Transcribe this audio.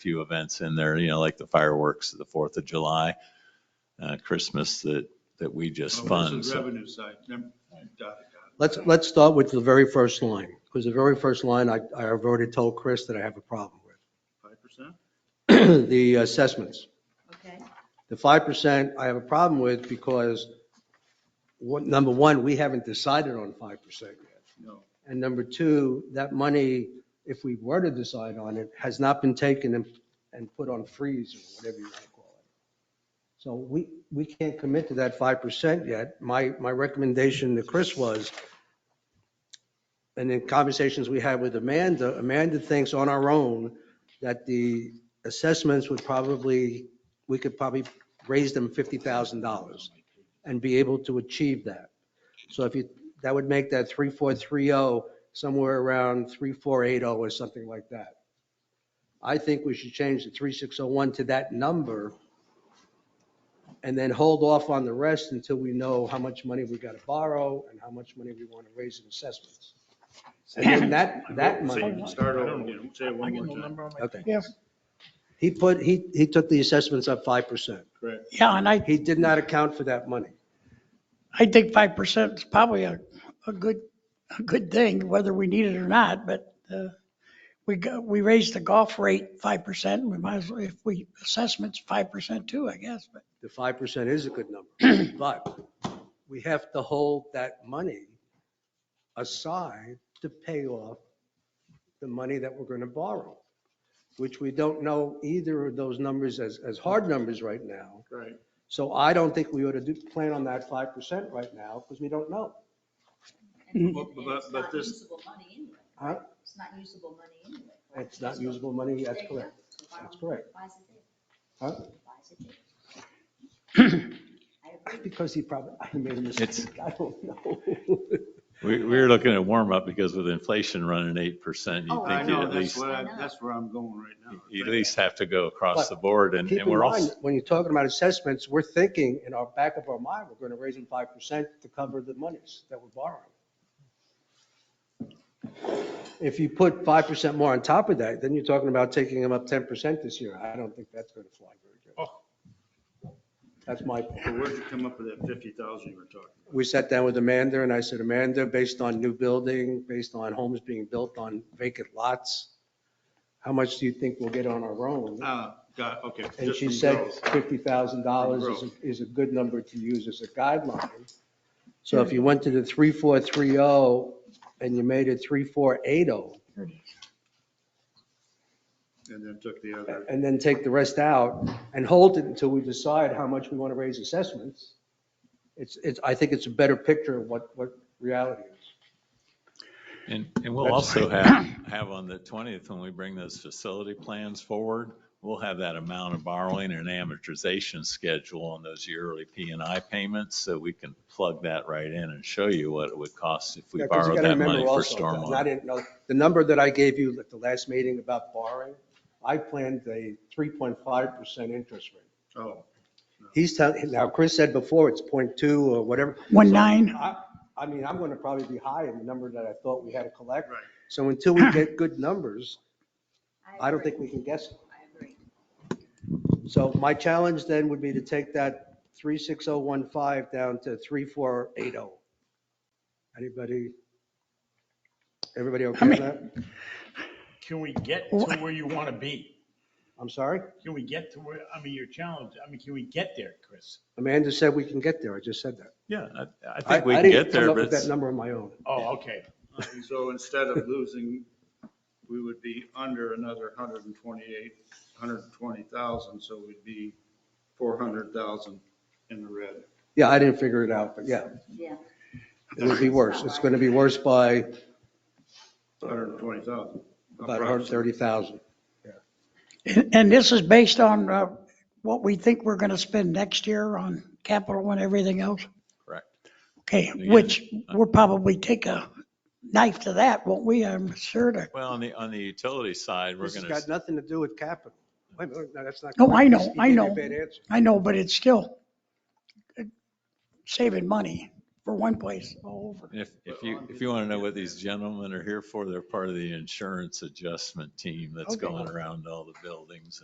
few events in there, you know, like the fireworks, the Fourth of July, uh, Christmas that, that we just Well, fund. this is So Oh, Revenue side. Num- dot, dot. Let's, let's start with the very first line, because the very first line, I, I have already told Chris that I have a problem Five percent? with. The assessments. okay? The 5% I have a problem with because, one- number one, we haven't decided on 5% yet. No. And number two, that money, if we were to decide on it, has not been taken and, and put on freeze or whatever you want to call it. So we, we can't commit to that 5% yet. My, my recommendation to Chris was, and in conversations we had with Amanda, Amanda thinks on our own that the assessments would probably, we could probably raise them $50,000 and be able to achieve that. So if you, that would make that 3430 somewhere around 3480 or something like that. I think we should change the 3601 to that number and then hold off on the rest until we know how much money we got to borrow and how much money we want to raise in assessments. And then that, that money, Say- Start over again. Say it one more time. okay. Yeah. He put, he, he took the assessments up 5%. Correct. Yeah, and I, He did not account for that money. I think 5% is probably a, a good, a good thing, whether we need it or not, but uh, we, go- we raised the golf rate 5%, we might as well, if we, assessments 5% too, I guess, but the five percent is a good number, but we have to hold that money aside to pay off the money that we're gonna borrow, which we don't know either of those numbers as, as hard numbers right now. Right. So I don't think we ought to do, plan on that five percent right now, because we don't know. And Well, but- it's but not this- usable money anyway. Huh? It's not usable money anyway. It's not usable money, that's correct. That's correct. Why is it there? Huh? Why is it there? I agree. Because he probably, I made a It's- mistake, I don't know. we, we were looking at warm up because with inflation running 8%, you Oh, I think you know, at that's least, what, I- that's where I'm going right now. you at least have to go across the board and, Keep and in we're mind, also, when you're talking about assessments, we're thinking in our back of our mind, we're gonna raise them five percent to cover the monies that we're borrowing. If you put five percent more on top of that, then you're talking about taking them up ten percent this year. I don't think that's gonna fly very good. Oh. That's my, So where'd you come up with that fifty thousand you were talking? we sat down with Amanda and I said, Amanda, based on new building, based on homes being built on vacant lots, how much do you think we'll get on our own? Ah, got, okay. And just she from said growth. fifty thousand dollars is, a- is a good number to use as a guideline. So if you went to the three, four, three, oh, and you made it three, four, eight, oh, And then took the other. and then take the rest out and hold it until we decide how much we want to raise assessments, it's, it's, I think it's a better picture of what, what reality is. and, and we'll also have, have on the 20th, when we bring those facility plans forward, we'll have that amount of borrowing and amortization schedule on those yearly P and I payments. So we can plug that right in and show you what it would cost if we Yeah, 'cause you borrowed gotta that remember money for also, stormwater. and I didn't know, the number that I gave you at the last meeting about borrowing, I planned a three point five percent interest rate. Oh, He's telling, now Chris said before it's 0.2 or whatever. 1.9, I, I mean, I'm going to probably be high in the number that I thought we had to collect. right. So until we get good numbers, I don't agree. think we can guess. I agree. So my challenge then would be to take that 36015 down to 3480. oh. Anybody? Everybody okay with that? Can we get to where you want to be? I'm sorry? Can we get to where, I mean, your challenge, I mean, can we get there, Chris? Amanda said we can get there. I just said that. Yeah, I, I think we I can didn't get come there, up but with it's- That number on my own. Oh, okay. So instead of losing, we would be under another hundred and twenty-eight, hundred and twenty thousand, so we'd be four hundred thousand in the red. Yeah, I didn't figure it out, but yeah, Yeah. it would be worse. It's going to be worse by Hundred and twenty thousand. about 130,000. and and this is based on uh, what we think we're going to spend next year on capital and everything else? Correct. Okay, Again, which we'll probably take a knife to that, won't we? I'm sure to Well, on the, on the utility side, we're This has gonna, got nothing to do with capital. Wait, wait, no, that's not. No, correct. Oh, I know, He gave I you a know. bad answer. I know, but it's still saving money. for one place all over. If, if you, if you want to know what these gentlemen are here for, they're part of the insurance adjustment team that's Okay. going around all the buildings